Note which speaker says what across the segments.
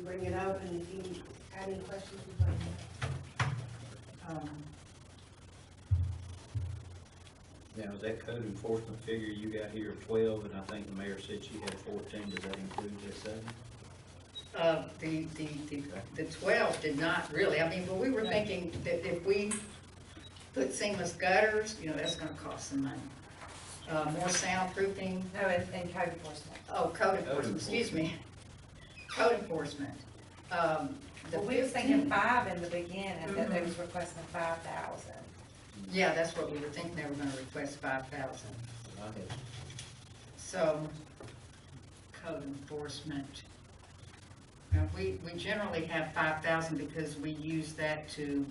Speaker 1: bring it up, and if you had any questions, you'd like to.
Speaker 2: Um,
Speaker 3: Now, is that code enforcement figure you got here twelve, and I think the mayor said she had fourteen, does that include this seven?
Speaker 2: Uh, the, the, the, the twelve did not really, I mean, but we were thinking that if we put seamless gutters, you know, that's gonna cost some money. Uh, more soundproofing,
Speaker 4: No, and, and code enforcement.
Speaker 2: oh, code enforcement, excuse me, code enforcement. Um, the
Speaker 4: Well, we Mm-hmm. was thinking
Speaker 2: 15
Speaker 4: five in the beginning, that they
Speaker 2: Mhm.
Speaker 4: was requesting five thousand.
Speaker 2: Yeah, that's what we were thinking, they were gonna request five thousand,
Speaker 3: I had
Speaker 2: so, code enforcement. Now, we, we generally have five thousand because we use that to,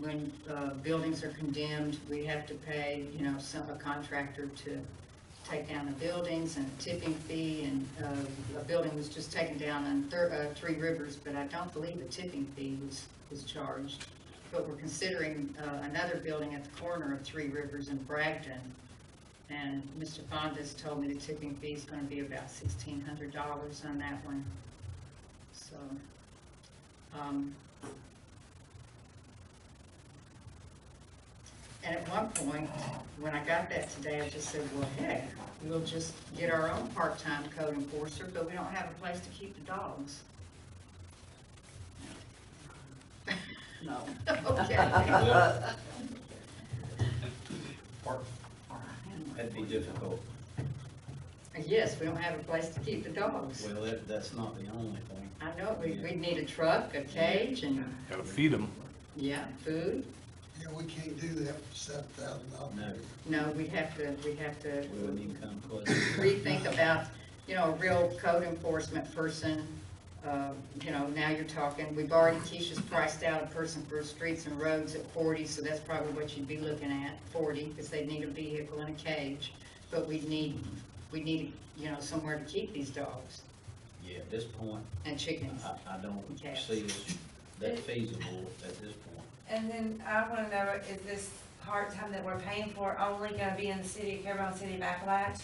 Speaker 2: when, uh, buildings are condemned, we have to pay, you know, some, a contractor to take down the buildings and tipping fee, and, uh, a building was just taken down on Thir- uh, Three Rivers, but I don't believe a tipping fee was, was charged. But we're considering, uh, another building at the corner of Three Rivers in Bragton, and Mr. Fondas told me the tipping fee is gonna be about sixteen hundred dollars on that one. So, um, and at one point, when I got that today, I just said, well, heck, we'll just get our own part-time code enforcer, but we don't have a place to keep the dogs.
Speaker 5: No.
Speaker 2: Okay.
Speaker 3: That'd be difficult.
Speaker 2: Yes, we don't have a place to keep the dogs.
Speaker 3: Well, that, that's not the only thing.
Speaker 2: I know, we, we need a truck, a cage, and,
Speaker 6: Gotta feed them.
Speaker 2: yeah, food.
Speaker 7: Yeah, we can't do that for seven thousand dollars.
Speaker 3: No,
Speaker 2: No, we have to, we have to
Speaker 3: we wouldn't even come close.
Speaker 2: rethink about, you know, a real code enforcement person. Uh, You know, now you're talking, we've already, Keisha's priced out a person for streets and roads at forty, so that's probably what you'd be looking at, forty, because they'd need a vehicle and a cage. But we need, we need, you know, somewhere to keep these dogs
Speaker 3: Yeah, at this point,
Speaker 2: and chickens.
Speaker 3: I, I don't see it that feasible at this point.
Speaker 4: And then I wanna know, is this part-time that we're paying for only gonna be in the city, of Carroll City of Appalachia?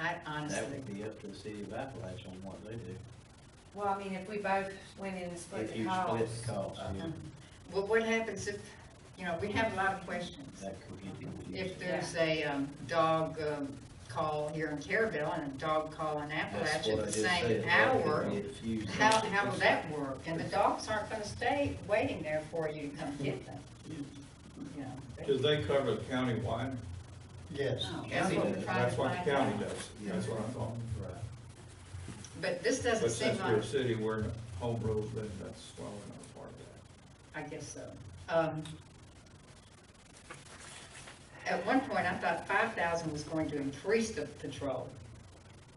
Speaker 2: I
Speaker 3: That
Speaker 2: honestly,
Speaker 3: would be up to the city of Appalachia on what they do,
Speaker 4: Well, I mean, if we both went in and split
Speaker 3: if
Speaker 4: the
Speaker 3: you split
Speaker 4: cost.
Speaker 3: the cost,
Speaker 2: Uh-huh.
Speaker 3: yeah,
Speaker 2: what, what happens if, you know, we have a lot of questions.
Speaker 3: that could get confusing.
Speaker 2: If there's a um, dog um, call here in Carabel and a dog call in
Speaker 3: That's what
Speaker 2: Appalachia at
Speaker 3: I
Speaker 2: the
Speaker 3: just
Speaker 2: same
Speaker 3: said, that could
Speaker 2: hour,
Speaker 3: get confusing.
Speaker 2: how, how will that work? And the dogs aren't gonna stay waiting there for you to come get them. You know, they- Oh,
Speaker 8: Does they cover the countywide?
Speaker 7: Yes.
Speaker 2: That's what we're trying to
Speaker 8: That's what the
Speaker 2: find
Speaker 8: county
Speaker 2: out.
Speaker 8: does, that's what I'm talking.
Speaker 3: Right.
Speaker 2: But this
Speaker 8: But
Speaker 2: doesn't seem
Speaker 8: since we're a
Speaker 2: like,
Speaker 8: city, we're in a home rule, then that's why we're not part of that.
Speaker 2: I guess so. Um, At one point, I thought five thousand was going to increase the patrol.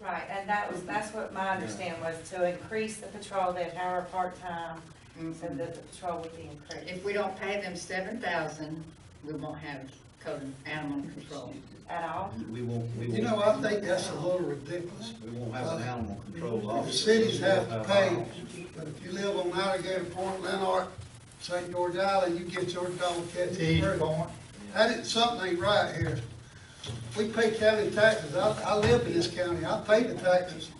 Speaker 4: Right, and that was, that's what my understanding was, to increase the patrol, they'd hire a part-time,
Speaker 3: Mm-hmm.
Speaker 4: so that the patrol would be increased.
Speaker 2: If we don't pay them seven thousand, we won't have code animal control.
Speaker 4: At all?
Speaker 3: We won't, we won't.
Speaker 7: You know, I think that's a little ridiculous.
Speaker 3: We won't have an animal control
Speaker 7: The
Speaker 3: officer.
Speaker 7: cities have to pay, but if you live on Alligator Point, Lenart, St. George Island, you get your dog catch
Speaker 8: Eat.
Speaker 7: and bring. That is, something ain't right here. We pay county taxes, I, I live in this county, I pay the taxes.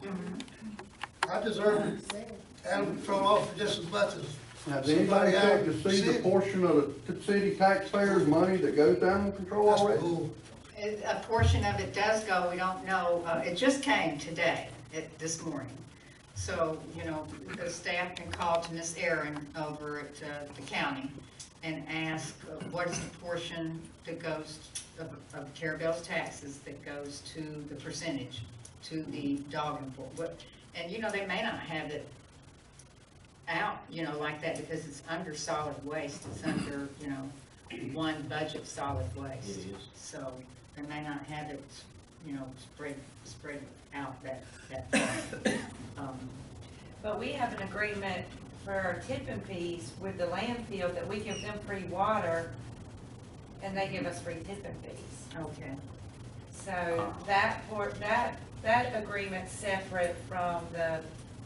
Speaker 7: I deserve animal control officer just as much as
Speaker 9: Now, does anybody check to see the portion of the city taxpayers' money that goes to animal control
Speaker 7: That's
Speaker 9: already?
Speaker 7: bull.
Speaker 2: A a portion of it does go, we don't know, uh, it just came today, it- this morning. So, you know, the staff can call to Miss Erin over at uh, the county and ask uh, what is the portion that goes, of of Carabel's taxes that goes to the percentage, to the dog enfor- what And, you know, they may not have it out, you know, like that because it's under solid waste, it's under, you know, one budget solid
Speaker 3: It
Speaker 2: waste.
Speaker 3: is.
Speaker 2: So they may not have it, you know, spread, spread out that, that. um,
Speaker 4: But we have an agreement for our tipping fees with the landfill that we give them free water and they give us free tipping fees.
Speaker 2: Okay,
Speaker 4: So that port, that, that agreement's separate from the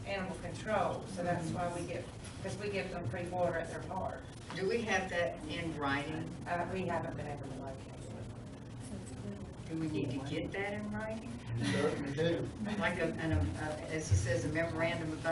Speaker 4: animal control, so that's why we get, because we give them free water at their park.
Speaker 2: do we have that in writing?
Speaker 4: Uh, we haven't been able to locate
Speaker 2: Do we need to get that in writing?
Speaker 7: Certainly do.
Speaker 2: Like a, an, a- as he says, a memorandum of